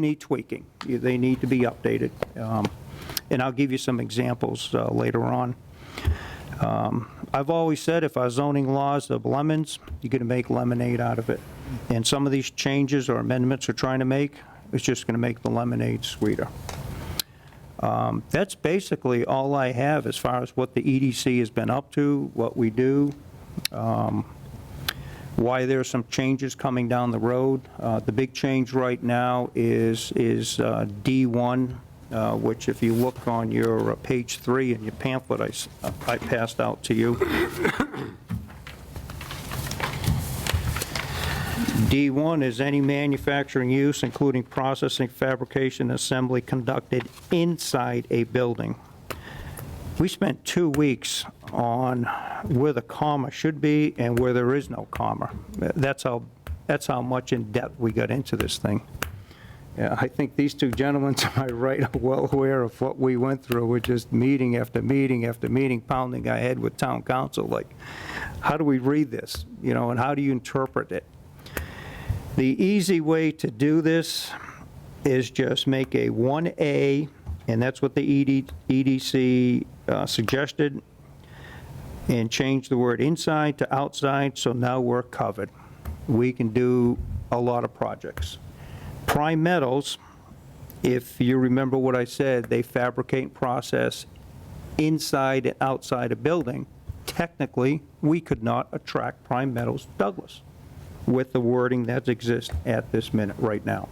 need tweaking. You- They need to be updated. Um, And I'll give you some examples uh, later on. Um, I've always said if our zoning laws of lemons, you're going to make lemonade out of it. And some of these changes or amendments we're trying to make, it's just going to make the lemonade sweeter. Um, That's basically all I have as far as what the EDC has been up to, what we do why there are some changes coming down the road. Uh, The big change right now is, is uh, D1, uh, which if you look on your uh, page three in your pamphlet I s- I passed out to you. D1 is any manufacturing use, including processing, fabrication, assembly conducted inside a building. We spent two weeks on where the comma should be and where there is no comma. That's how, that's how much in depth we got into this thing. Yeah, I think these two gentlemen to my right are well aware of what we went through. We're just meeting after meeting after meeting, pounding our head with town council, like, how do we read this? You know, and how do you interpret it? The easy way to do this is just make a 1A, and that's what the E ED EDC uh, suggested, and change the word inside to outside, so now we're covered. We can do a lot of projects. Prime metals, if you remember what I said, they fabricate and process inside and outside a building. Technically, we could not attract prime metals to Douglas with the wording that exists at this minute, right now.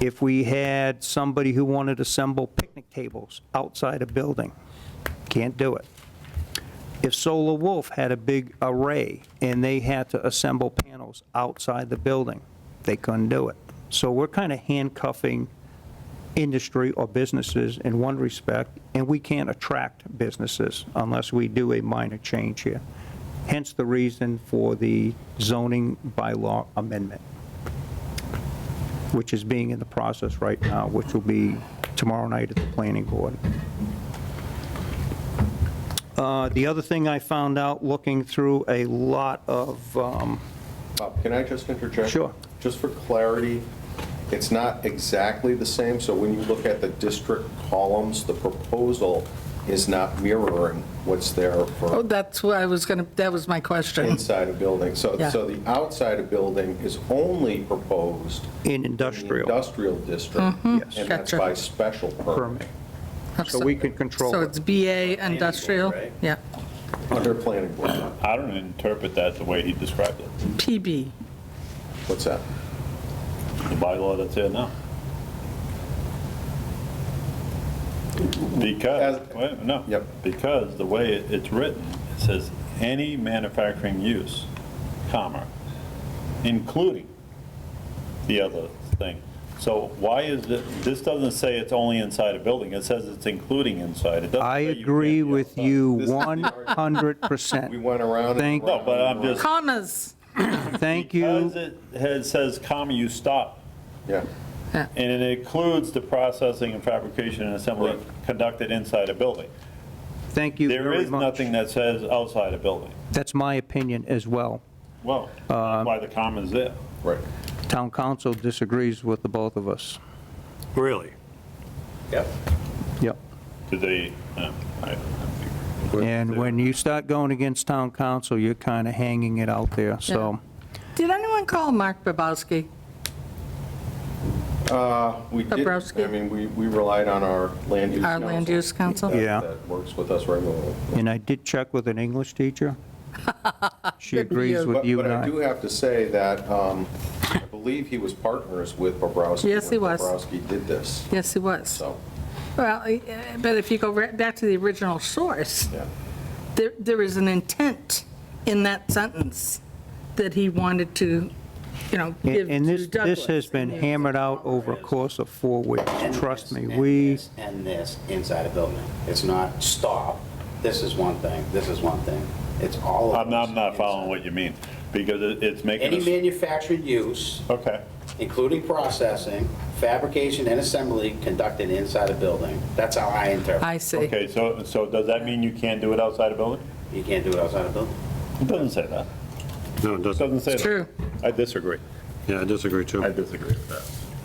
If we had somebody who wanted to assemble picnic tables outside a building, can't do it. If Solar Wolf had a big array and they had to assemble panels outside the building, they couldn't do it. So we're kind of handcuffing industry or businesses in one respect, and we can't attract businesses unless we do a minor change here. Hence the reason for the zoning bylaw amendment, which is being in the process right now, which will be tomorrow night at the planning board. Uh, The other thing I found out, looking through a lot of, um, Bob, can I just interject? Sure. Just for clarity, it's not exactly the same, so when you look at the district columns, the proposal is not mirroring what's there Oh, for that's what I was going to, that was my question. inside a building. So, Yeah. so the outside a building is only proposed in in the industrial industrial district. Yes. And that's Gotcha. by special permit, permit, so we can control So it. it's BA industrial? right? Yeah, under planning board. I don't interpret that the way he described it, PB. What's that? the bylaw that's there now. Because, As- wait, no. Yep. Because the way it- it's written, it says, any manufacturing use, comma, including the other thing. So why is it, this doesn't say it's only inside a building, it says it's including inside. It doesn't I say you can't agree be with outside. you This is the 100%. We went around Thank- and No, around. but I'm and around. just, Commas. Thank because you. it has- says comma, you stop Yeah. And it includes the processing and fabrication and assembly Correct. conducted inside a building. Thank you There very is much. nothing that says outside a building. That's my opinion as well. Well, that's why the comma's there. Right. Town council disagrees with the both of us. Really? Yep. Yep. Do they, no, I- And when you start going against town council, you're kind of hanging it out there, so. Did anyone call Mark Babowski? Uh, We did, Bobrowski? I mean, we we relied on our land use Our council. land use council? that- Yeah. That works with us regularly. And I did check with an English teacher. She Good for agrees you. with But- you But and I do I. have to say that um, I believe he was partners with Bobrowski. Yes, he when was. Bobrowski did this, Yes, he was. so, Well, eh, eh, but if you go right back to the original source, yeah. there, there is an intent in that sentence that he wanted to, you know, give And and to this, this has Douglas. been hammered out over a course of four weeks, and trust this, me. and We, this, And this inside a building. It's not stop, this is one thing, this is one thing. It's all of I'm not, I'm not those following inside. what you mean, because it- it's making Any us, manufactured use, okay. including processing, fabrication, and assembly conducted inside a building. That's how I interpret. I see. Okay, so, so does that mean you can't do it outside a building? it. You can't do it outside a building. It doesn't say that. No, it doesn't. Doesn't say that. True. I disagree. Yeah, I disagree too. I disagree with that.